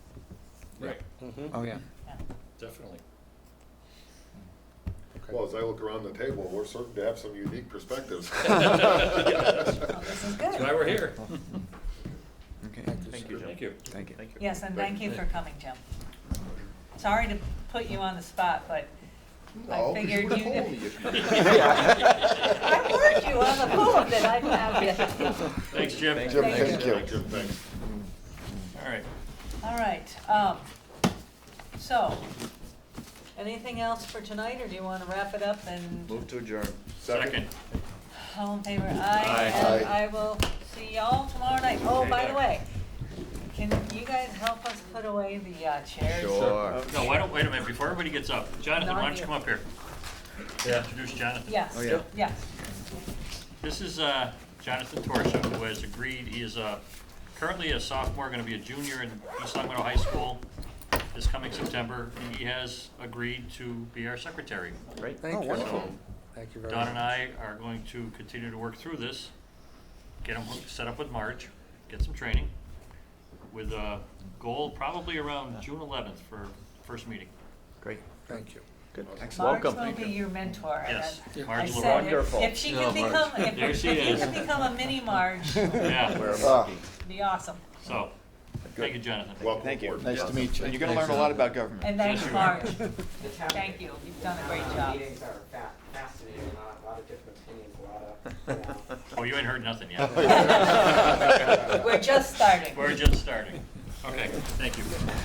Mm-hmm. Oh, yeah. Definitely. Well, as I look around the table, we're certain to have some unique perspectives. Well, This is That's why good. we're here. Okay, Thank you, Jim. Thank you. thank you. Thank you. Yes, and thank you for coming, Jim. Sorry to put you on the spot, but I No, 'cause figured would've you. told knew- me if I warned you on the poem that I found you. Thanks, Jim. Jim, Thank thank you. you. Jim, thanks. All right. All right, um, so, anything else for tonight, or do you wanna wrap it up and Move to adjourn. Second. all in favor? Aye. Aye. And Aye. I will see y'all tomorrow night. Oh, by the Okay. way, can you guys help us put away the uh, chairs? Sure. No, why don't, wait a minute, before everybody gets up, Jonathan, why don't you come up here? Introduce Jonathan. Yes, Oh, yeah. yes. This is uh, Jonathan Torsia, who has agreed, he is uh, currently a sophomore, going to be a junior in East Long Meadow High School this coming September. He has agreed to be our secretary. Great. Thank you. So Thank you very much. Don and I are going to continue to work through this, get him set up with March, get some training, with a goal probably around June 11th for first meeting. Great. Thank you. Good. Marge Welcome. will be your mentor. and Yes, I- Marge I Leroy. said, if- Wonderful. If she could Yeah, Marge. become, if, There if she you is. could become a mini Marge, it'd Wear a Yeah, monkey. be awesome. so, thank you, Jonathan. Welcome Thank you. aboard. Nice to meet you. And you're gonna learn a lot about government. And thanks, Yes, you are. Marge. Thank you. You've done a great Um, job. Meetings are fa- fascinating, a lot, a lot of different opinions, a lot of, you know, Oh, you ain't heard nothing yet. We're just starting. We're just starting. Okay, thank you.